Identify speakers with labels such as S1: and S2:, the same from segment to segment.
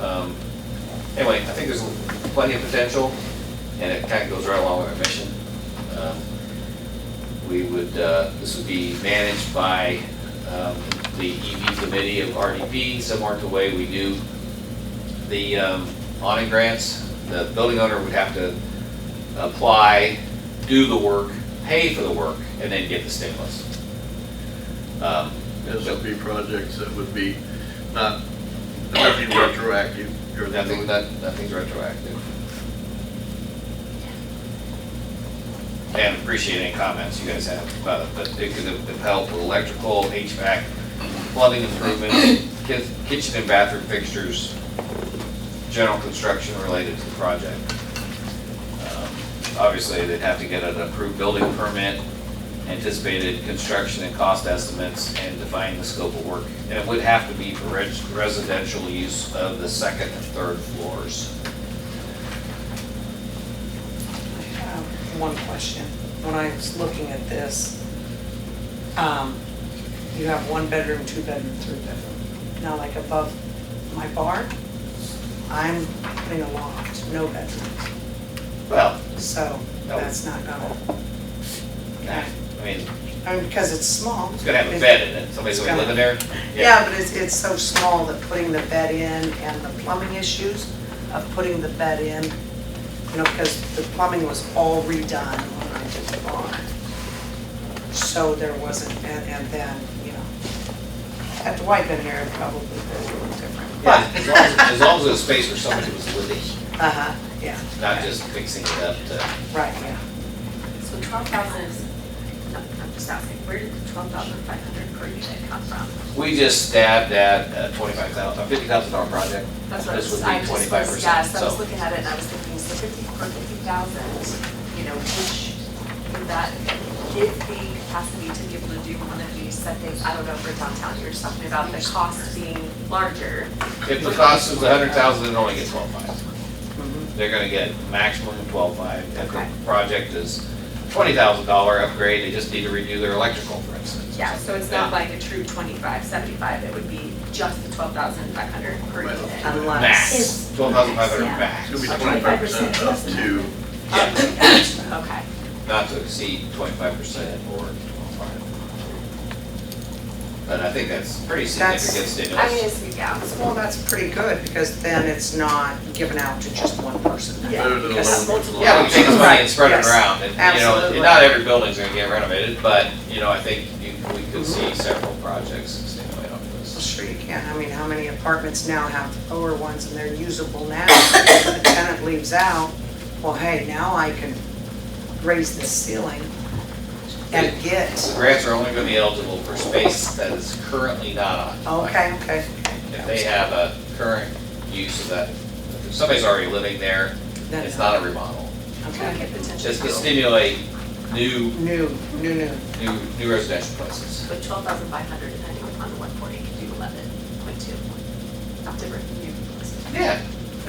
S1: Um, Anyway, I think there's plenty of potential, and it kind of goes right along with our mission. Um, We would, uh, this would be managed by um, the EV committee of RDP, similar to the way we do the um, awning grants. The building owner would have to apply, do the work, pay for the work, and then get the stimulus. Um,
S2: This would be projects that would be not, nothing retroactive. or
S1: Nothing, that- nothing's retroactive. And appreciate any comments you guys have about it, but it could have helped with electrical, HVAC, plumbing improvements, kit- kitchen and bathroom fixtures, general construction related to the project. Um, Obviously, they'd have to get an approved building permit, anticipated construction and cost estimates, and define the scope of work. And it would have to be for res- residential use of the second and third floors.
S3: I have One question. When I was looking at this, um, you have one bedroom, two bedroom, three bedroom. Now, like above my barn, I'm putting a loft, no bedrooms.
S1: Well,
S3: So
S1: No.
S3: that's not gonna,
S1: nah, I mean,
S3: I mean, because it's small.
S1: it's gonna have a bed in it, somebody's gonna be living there.
S3: Yeah, but it's, it's so small that putting the bed in and the plumbing issues of putting the bed in, you know, because the plumbing was all redone when I did the barn. So there wasn't, and, and then, you know, had Dwight been here, it probably would have been a little different.
S1: Yeah,
S3: But,
S1: As long as, as long as it's a space where somebody was living,
S3: uh-huh, yeah,
S1: not just fixing it up to,
S3: right, yeah.
S4: So twelve thousand is, no, I'm just asking, where did the twelve thousand five hundred per unit come from?
S1: we just stabbed at twenty-five thousand, fifty thousand dollar project.
S4: That's what I
S1: This
S4: was,
S1: would
S4: I
S1: be
S4: just was,
S1: twenty-five
S4: yeah,
S1: percent,
S4: so I was
S1: so
S4: looking at it and I was thinking, so fifty, for fifty thousand, you know, which, would that give the capacity to be able to do one of these set things? I don't know, for downtown, you were just talking about the cost being larger.
S1: if the cost is a hundred thousand, it only gets twelve-five. They're gonna get maximum twelve-five, if
S4: Mm-hmm. Okay.
S1: the project is twenty thousand dollar upgrade, they just need to redo their electrical, for instance. or
S4: Yeah,
S1: something
S4: so it's
S1: that.
S4: not like a true twenty-five, seventy-five, it would be just the twelve thousand five hundred per
S2: Right.
S4: unit.
S3: Unless-
S1: Max,
S5: It's-
S1: twelve thousand five hundred
S4: Yeah.
S1: max,
S2: It's gonna be
S4: Okay.
S2: twenty-five percent up to,
S1: Yeah,
S4: Okay.
S1: not to exceed twenty-five percent or twelve-five. But I think that's pretty
S3: That's-
S1: significant
S4: I mean,
S1: stimulus.
S4: it's, yeah, it's
S3: Well, that's pretty good, because then it's not given out to just one person.
S4: Yeah.
S2: better than a
S3: Because-
S2: loan.
S1: Yeah, we take this money and spread it
S3: Yes.
S1: around, and, you know,
S3: Absolutely.
S1: and not every building's gonna get renovated, but, you know, I think you, we could see several projects stimulate off
S3: Well,
S1: this.
S3: Sure you can. I mean, how many apartments now have lower ones and they're usable now? The tenant leaves out, well, hey, now I can raise the ceiling and
S1: The
S3: get,
S1: grants are only gonna be eligible for space that is currently not occupied.
S3: okay, okay.
S1: If they have a current use of that, if somebody's already living there,
S3: Then-
S1: it's not a remodel.
S4: gonna
S3: Okay.
S4: get potential.
S1: Just to stimulate new,
S3: New, new, new.
S1: new, new residential places.
S4: But twelve thousand five hundred depending on the one forty could do eleven point two. Not different new places.
S1: Yeah,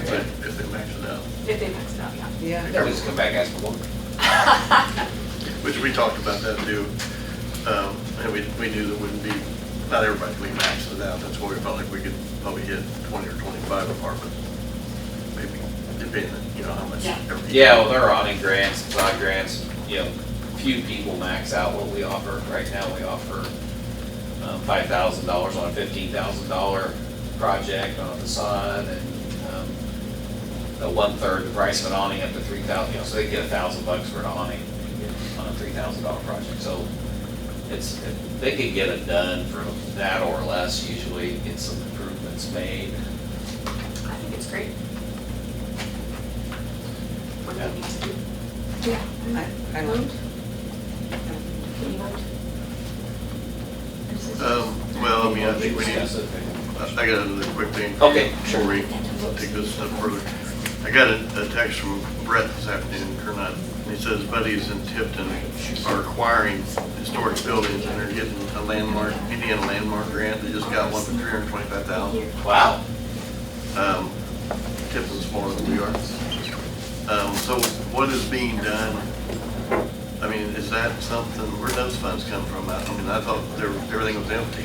S2: If they- if they max it out,
S4: If they max it out, yeah.
S3: Yeah,
S1: they'll just come back and ask for more.
S2: which we talked about that too. Um, and we, we knew that wouldn't be, not everybody could be maxed it out. That's why we felt like we could probably hit twenty or twenty-five apartments. Maybe, depending, you know, how much.
S4: Yeah.
S2: every-
S1: Yeah, well, they're awning grants, facade grants, you know, few people max out what we offer. Right now, we offer um, $5,000 on a $15,000 project on a facade and um, a one-third the price of an awning up to 3,000, you know, so they get a thousand bucks for an awning on a $3,000 project. So it's, they could get it done for that or less usually, get some improvements made.
S4: I think it's great. What do we need to do?
S3: I, I don't,
S4: Can you vote?
S2: Um, well, I mean, I think we need,
S1: Discuss it.
S2: I got another quick thing.
S1: Okay, sure.
S2: Before we take this step further. I got a a text from Brett this afternoon, Kernot, and he says buddies in Tipton are acquiring historic buildings and they're getting a landmark, Indiana landmark grant. They just got one for three hundred and twenty-five thousand.
S1: Wow.
S2: Um, Tipton's smaller than we are. Um, so what is being done? I mean, is that something, where those funds come from? I I mean, I thought there- everything was empty.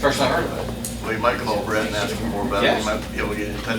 S1: First I heard of it.
S2: Well, you might call Brett and ask him more about it. He might be able to get in touch